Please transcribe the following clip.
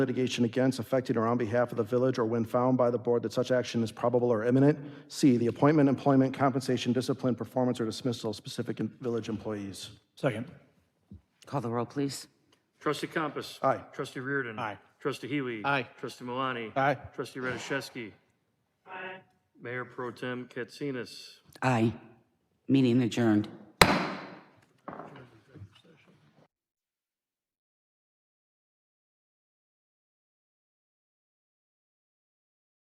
litigation against, affecting, or on behalf of the village, or when found by the board that such action is probable or imminent. C, the appointment, employment, compensation, discipline, performance, or dismissal of specific in- village employees. Second. Call the roll, please. Trustee Compass. Aye. Trustee Reardon. Aye. Trustee Healy. Aye. Trustee Malani. Aye. Trustee Radiszewski. Aye. Mayor Pro Tem Katsinas. Aye. Meeting adjourned.